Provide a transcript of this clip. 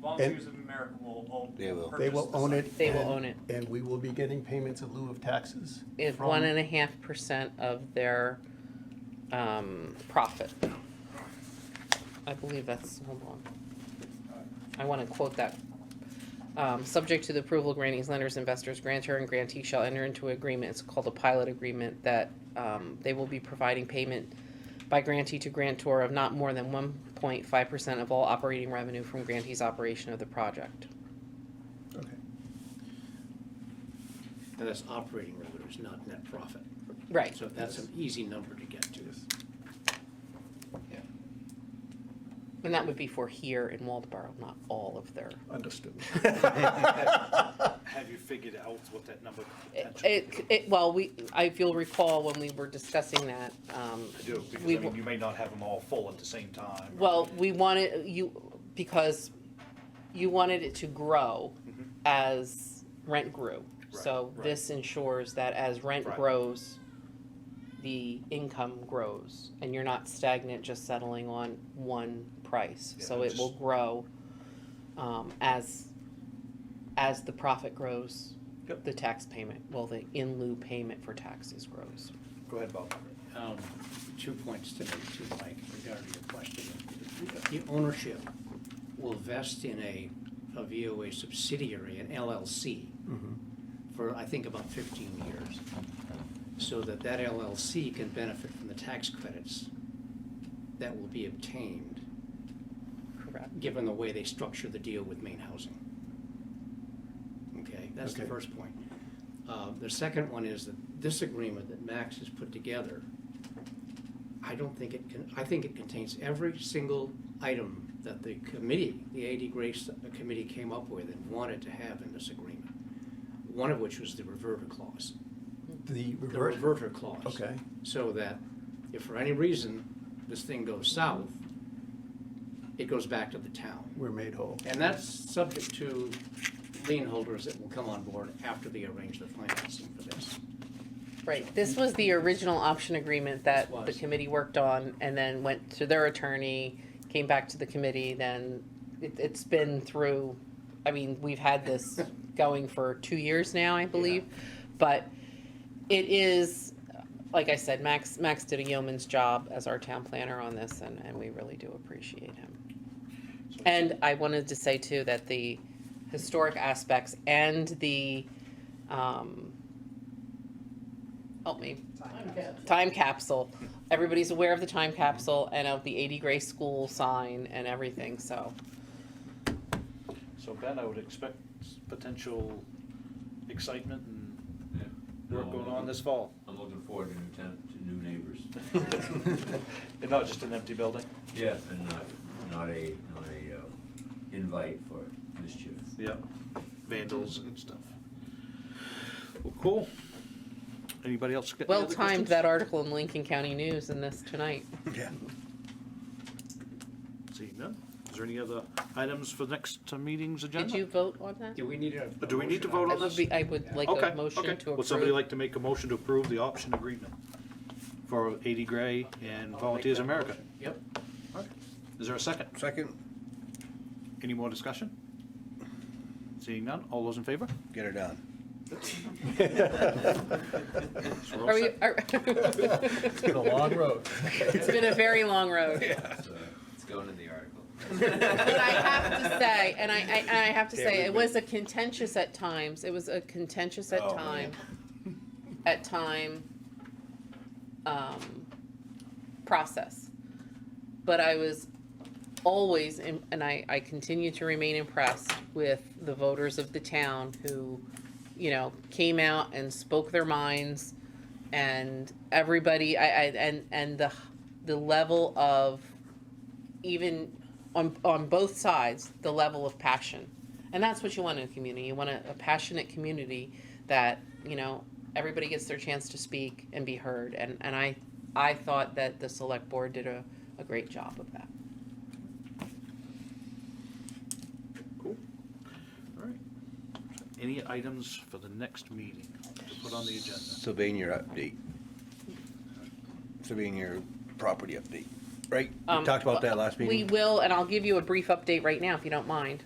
Volunteers of America will own. They will. purchase They will the own site. it. They will and- own it. And we will be getting payments in lieu of taxes. It's from- one and a half percent of their, um, profit. I believe that's, hold on. I wanna quote that. Um, subject to the approval of grantees, lenders, investors, grantor and grantee shall enter into agreement, it's called a pilot agreement, that, um, they will be providing payment by grantee to grantor of not more than one point five percent of all operating revenue from grantee's operation of the project. Okay. And that's operating revenues, not net profit. Right. So that's an easy number to get to. And that would be for here in Waldeboro, not all of their. Understood. Have you figured out what that number could It- potentially? It, it, well, we, I feel recall when we were discussing that, um. I do, because I we mean, w- you may not have them all full at the same time. or- Well, we wanted, you, because you wanted it to grow Mhm. as rent grew. Right, So right. this ensures that as rent Right. grows, the income grows and you're not stagnant, just settling on one price. Yeah, So it will just- grow, um, as, as the profit grows, Yep. the tax payment, well, the in lieu payment for taxes grows. Go ahead, Bob. Um, Two points to make, to Mike, regarding your question. The ownership will vest in a, a VOA subsidiary, an LLC, Mm-hmm. for, I think, about fifteen years. So that that LLC can benefit from the tax credits that will be obtained, Correct. given the way they structure the deal with Maine Housing. Okay, that's the Okay. first point. Uh, The second one is that this agreement that Max has put together, I don't think it can, I think it contains every single item that the committee, the AD Grace Committee came up with and wanted to have in this agreement. One of which was the reverter clause, The the reverse, reverter clause okay, so that if for any reason this thing goes south, it goes back to the town. we're made whole. And that's subject to lien holders that will come on board after they arrange the financing for this. Right, this was the original option agreement that This the was. committee worked on and then went to their attorney, came back to the committee, then it, it's been through, I mean, we've had this going for two years now, I believe. But it is, like I said, Max, Max did a yeoman's job as our town planner on this and, and we really do appreciate him. So- And I wanted to say too that the historic aspects and the, um, help me. Time capsule. Everybody's aware of the time capsule and of the 80 Gray School sign and everything, so. So Ben, I would expect s- potential excitement and Yeah. Um, work going on this fall. I'm looking forward to new town, to new neighbors. And not just an empty building. Yeah, and not, not a, not a, uh, invite for mischief. Yep. Vandals and stuff. Well, cool. Anybody else? got any Well other timed, questions? that article in Lincoln County News and this tonight. Yeah. Seeing none. Is there any other items for next uh, meeting's agenda? Did you vote on that? Do we need a? Do we need to vote I on would this? be, I would like Okay, a motion to okay. approve. Would somebody like to make a motion to approve the option agreement for 80 Gray and Volunteers America? Yep. Is there a second? Second, Any more discussion? Seeing none, all those in favor? get her done. So we're all Are we, set. are. It's been a long road. It's been a very long road. So, It's going in the article. But I have to say, and I, I, and I have to say, it was a contentious at times, it was a contentious at Oh, time, at time, um, process. But I was always, in- and I, I continue to remain impressed with the voters of the town who, you know, came out and spoke their minds, and everybody, I, I, and, and the, the level of, even on, on both sides, the level of passion. And that's what you want in a community. You want a, a passionate community that, you know, everybody gets their chance to speak and be heard. And, and I, I thought that the select board did a, a great job of that. Cool. All right. Any items for the next meeting to put on the agenda? Sylvania update. Sylvania property update, right? We Um, talked about that last meeting. We will, and I'll give you a brief update right now if you don't mind.